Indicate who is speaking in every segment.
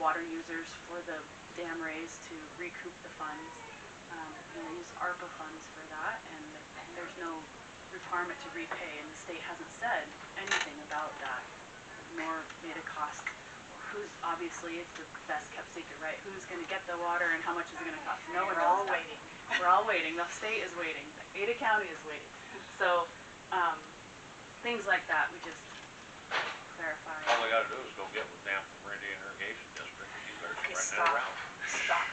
Speaker 1: water users for the dam raise to recoup the funds. Um, You know, use ARPA funds for that, and there's no requirement to repay, and the state hasn't said anything about that, nor made a cost. Who's, obviously, it's the best kept secret, right? Who's gonna get the water and how much is it gonna cost? No one
Speaker 2: We're
Speaker 1: knows
Speaker 2: all
Speaker 1: that.
Speaker 2: waiting.
Speaker 1: We're all waiting, the state is waiting, Ada County is waiting. So, um, things like that, we just clarify.
Speaker 3: All they gotta do is go get with NAP from Randy and Irrigation District, and you better
Speaker 2: Okay,
Speaker 3: spread that
Speaker 2: stop.
Speaker 3: around.
Speaker 2: Stop.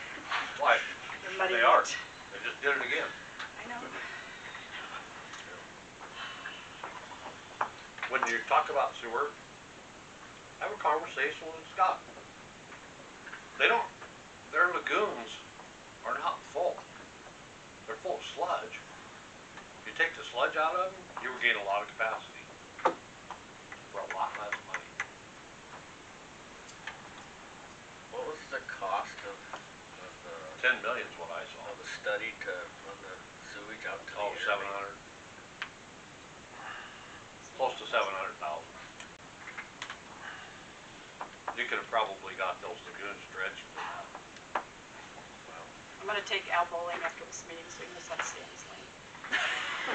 Speaker 3: Why?
Speaker 2: You're muddying
Speaker 3: They are,
Speaker 2: it.
Speaker 3: they just did it again.
Speaker 1: I know.
Speaker 3: When you talk about sewer, have a conversation with Scott. They don't, their lagoons are not full. They're full of sludge. You take the sludge out of them, you regain a lot of capacity. For a lot less money.
Speaker 4: What was the cost of, of the,
Speaker 3: Ten million is what I saw.
Speaker 4: of the study to run the sewage out to the
Speaker 3: Oh,
Speaker 4: air?
Speaker 3: seven hundred. Close to seven hundred thousand. You could have probably got those lagoons dredged.
Speaker 2: I'm gonna take Al bowling after this meeting, so we can just have Sandy's lane.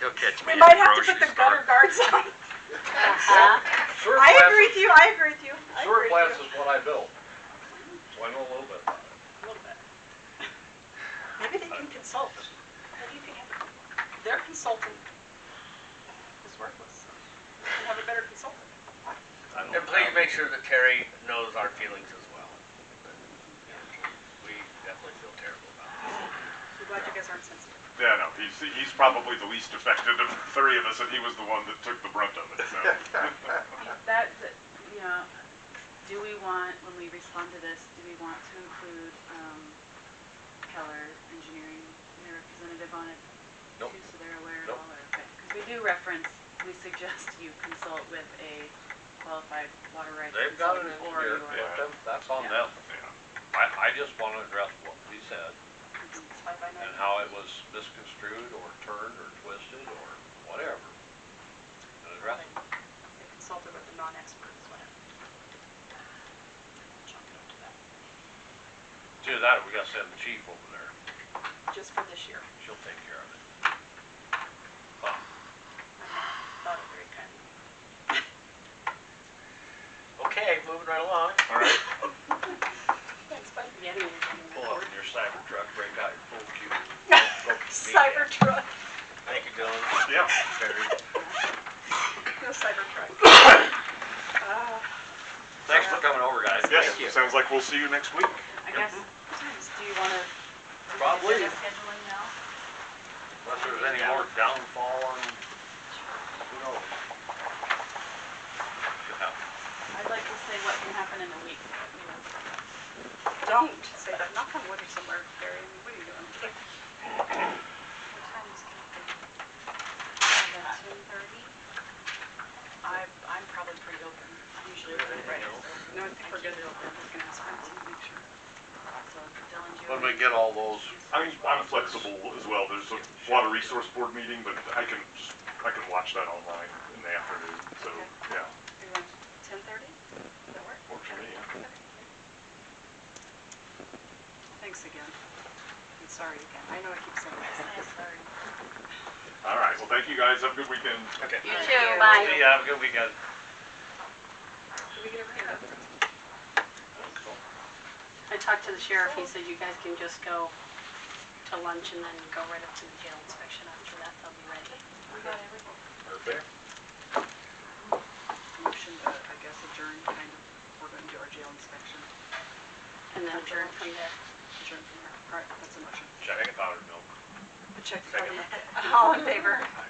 Speaker 4: He'll catch
Speaker 2: We might have to put the gutter guards on.
Speaker 3: Sewer
Speaker 2: I
Speaker 3: plants-
Speaker 2: agree with you, I agree with you. I
Speaker 3: Sewer
Speaker 2: agree
Speaker 3: plants
Speaker 2: with
Speaker 3: is what I built, so I know a little bit. about it.
Speaker 2: you. A little bit. Maybe they can consult. Maybe you can have, their consultant is worthless. You can have a better consultant.
Speaker 3: I know
Speaker 4: And please
Speaker 3: about it.
Speaker 4: make sure that Terry knows our feelings as well. We definitely feel terrible about
Speaker 2: I'm glad you guys aren't sensitive.
Speaker 5: Yeah, no, he's, he's probably the least affected of the three of us, and he was the one that took the brunt of it, so.
Speaker 1: That, that, you know, do we want, when we respond to this, do we want to include, um, Keller Engineering, and their representative on it?
Speaker 3: Nope.
Speaker 1: too, So they're aware of
Speaker 3: Nope.
Speaker 1: all our, because we do reference, we suggest you consult with a qualified water rights
Speaker 3: They've got an
Speaker 1: consultant or
Speaker 3: engineer,
Speaker 1: you are-
Speaker 3: let them- that's on
Speaker 1: Yeah.
Speaker 3: them.
Speaker 5: Yeah.
Speaker 3: I, I just wanna address what he said.
Speaker 2: It's fine by
Speaker 3: and
Speaker 2: me.
Speaker 3: how it was misconstrued or turned or twisted or whatever. And address it.
Speaker 2: They consulted with the non-experts, whatever. Jump into that.
Speaker 3: To that, we gotta send the chief over there,
Speaker 2: Just for this year.
Speaker 3: she'll take care of it. Huh.
Speaker 2: Thought it very kind.
Speaker 4: it. Okay, moving right along.
Speaker 3: All right,
Speaker 2: Thanks, bud. Yeah, I mean,
Speaker 3: pull up in your cyber truck, break out your full cube.
Speaker 2: Cybertruck,
Speaker 4: Thank you, Dylan.
Speaker 5: Yeah.
Speaker 4: Terry.
Speaker 2: no Cybertruck. Uh,
Speaker 3: Thanks for coming over, guys.
Speaker 5: Yes, sounds like we'll see you next week.
Speaker 1: I guess, do you wanna? do you wanna
Speaker 3: Probably.
Speaker 1: get Scheduling now?
Speaker 3: Unless there's any more downfall on, who knows? Should happen.
Speaker 1: I'd like to say what can happen in a week, you know,
Speaker 2: Don't say that, knock on wood or somewhere, Gary, I mean, what are you doing?
Speaker 6: What time is it?
Speaker 1: that.
Speaker 6: Two thirty?
Speaker 2: I, I'm probably pretty open, I'm usually open Friday, so, no, I think we're good to open, just gonna ask friends and make sure.
Speaker 1: So Dylan, do you?
Speaker 3: When we get all those.
Speaker 5: I'm, I'm
Speaker 3: responses.
Speaker 5: flexible as well, there's a water resource board meeting, but I can, just- I can watch that online in the afternoon, so, yeah,
Speaker 1: Ten thirty? Does that work?
Speaker 5: works for me.
Speaker 2: Thanks again. I'm sorry again, I know I keep saying this.
Speaker 5: All right, well, thank you guys, have a good weekend.
Speaker 4: Okay.
Speaker 6: You
Speaker 1: Thank
Speaker 6: too,
Speaker 1: you.
Speaker 6: bye.
Speaker 3: See ya, have a good weekend.
Speaker 2: Do we get a hand up?
Speaker 6: I talked to the sheriff, he said you guys can just go to lunch and then go right up to the jail inspection after that, they'll be ready.
Speaker 3: Perfect.
Speaker 2: Motion to, I guess, adjourn, kind of, we're gonna do our jail inspection,
Speaker 6: And then adjourn from there.
Speaker 2: adjourn from there, all right, that's a motion.
Speaker 3: Check powder milk.
Speaker 2: Check. All in favor?